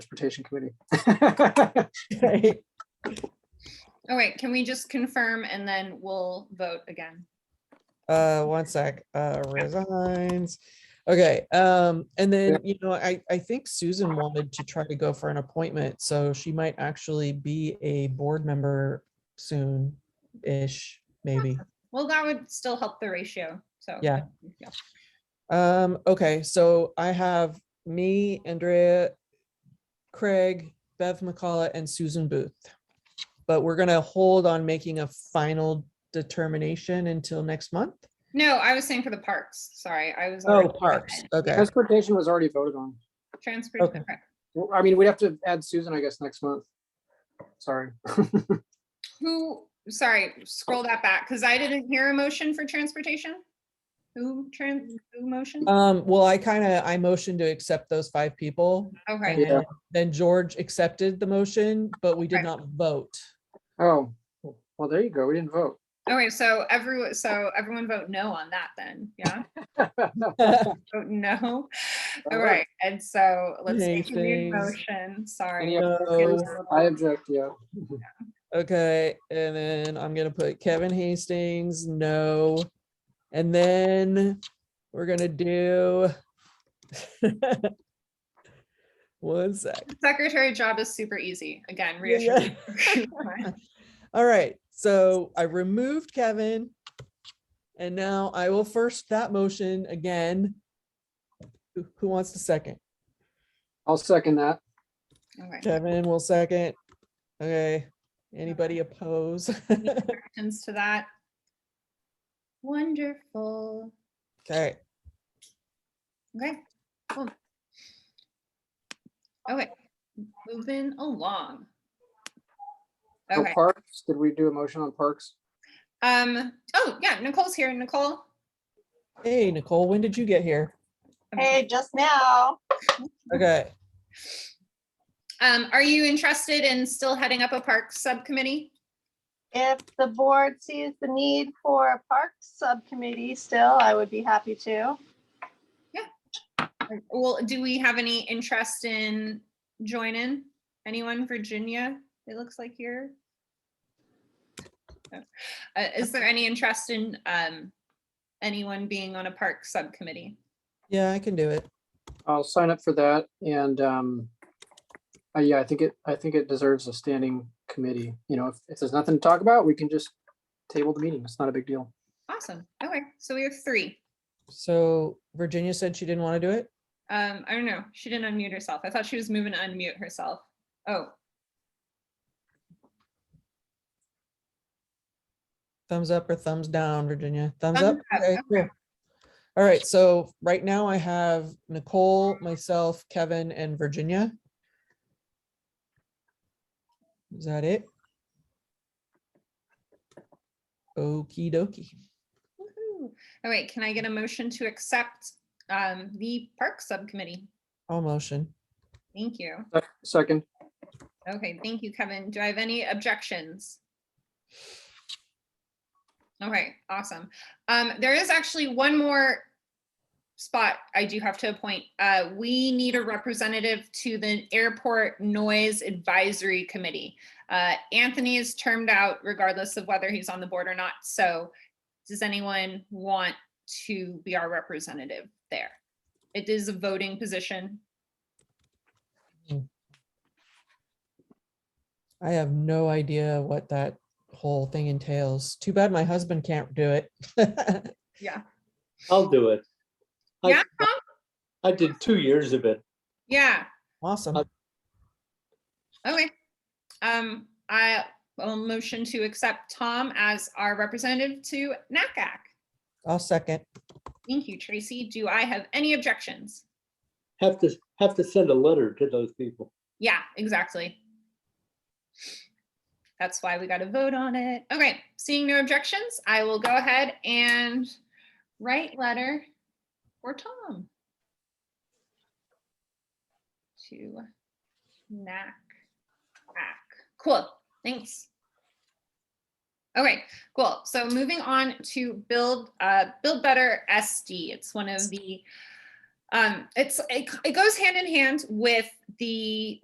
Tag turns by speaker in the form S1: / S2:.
S1: Transportation Committee.
S2: Right.
S3: All right, can we just confirm and then we'll vote again?
S2: Uh, one sec, uh, resigns. Okay, um, and then, you know, I, I think Susan wanted to try to go for an appointment, so she might actually be a board member soon-ish, maybe.
S3: Well, that would still help the ratio, so.
S2: Yeah. Um, okay, so I have me, Andrea, Craig, Bev McCullough, and Susan Booth. But we're gonna hold on making a final determination until next month.
S3: No, I was saying for the parks, sorry, I was.
S2: Oh, parks, okay,
S1: Transportation was already voted on.
S3: Transportation,
S2: Okay.
S3: correct.
S1: Well, I mean, we'd have to add Susan, I guess, next month. Sorry.
S3: who, sorry, scroll that back, because I didn't hear a motion for transportation. Who trans, who motion?
S2: um, well, I kind of, I motioned to accept those five people.
S3: Okay,
S1: Yeah.
S2: and Then George accepted the motion, but we did
S3: Right.
S2: not vote.
S1: Oh, well, there you go. We didn't vote.
S3: okay, so everyone, so everyone vote no on that then, yeah? Vote no, all right, and so let's
S2: Hey,
S3: make a new
S2: Faze.
S3: motion, sorry.
S1: Any other-
S2: So-
S1: I object, yeah.
S2: Okay, and then I'm gonna put Kevin Hastings, no. And then we're gonna do. One sec.
S3: Secretary job is super easy, again, reassuring.
S2: Yeah. All right, so I removed Kevin. And now I will first that motion again. Who- Who wants to second?
S1: I'll second that.
S3: Okay,
S2: Kevin will second. Okay, anybody oppose?
S3: Questions to that? Wonderful,
S2: Okay,
S3: okay, cool. Okay, moving along.
S1: For
S3: Okay,
S1: Oh, Parks, did we do a motion on parks?
S3: um, oh, yeah, Nicole's here, Nicole.
S2: hey Nicole, when did you get here?
S4: Hey, just now.
S2: Okay.
S3: Um, are you interested in still heading up a park subcommittee?
S4: If the board sees the need for a park subcommittee still, I would be happy to.
S3: Well, do we have any interest in joining? Anyone, Virginia? It looks like you're. Uh, is there any interest in, um, anyone being on a park subcommittee?
S2: Yeah, I can do it.
S1: I'll sign up for that and, um, uh, yeah, I think it, I think it deserves a standing committee. You know, if, if there's nothing to talk about, we can just table the meeting. It's not a big deal.
S3: Awesome. Okay, so we have three.
S2: So Virginia said she didn't want to do it?
S3: Um, I don't know. She didn't unmute herself. I thought she was moving to unmute herself. Oh,
S2: Thumbs up or thumbs down, Virginia? Thumbs up?
S3: Thumbs up,
S2: Okay, cool. All right, so right now I have Nicole, myself, Kevin, and Virginia. Is that it? Okey dokey.
S3: woohoo. All right, can I get a motion to accept, um, the park subcommittee?
S2: All motion.
S3: Thank you.
S1: Sec- Uh, Second,
S3: Okay, thank you, Kevin. Do I have any objections? Okay, awesome. Um, there is actually one more spot I do have to appoint. Uh, we need a representative to the Airport Noise Advisory Committee. Uh, Anthony is termed out regardless of whether he's on the board or not, so does anyone want to be our representative there? It is a voting position.
S2: I have no idea what that whole thing entails. Too bad my husband can't do it.
S5: I'll do it. I-
S3: Yeah,
S5: I did two years of it.
S3: yeah.
S2: Awesome.
S3: Okay. Um, I will motion to accept Tom as our representative to NACAC.
S2: I'll second.
S3: Thank you, Tracy. Do I have any objections?
S5: Have to, have to send a letter to those people.
S3: Yeah, exactly. That's why we got to vote on it. Okay, seeing no objections, I will go ahead and write letter for Tom. To NAC. Cool, thanks. Okay, cool. So moving on to build, uh, build better SD. It's one of the um, it's, it, it goes hand in hand with the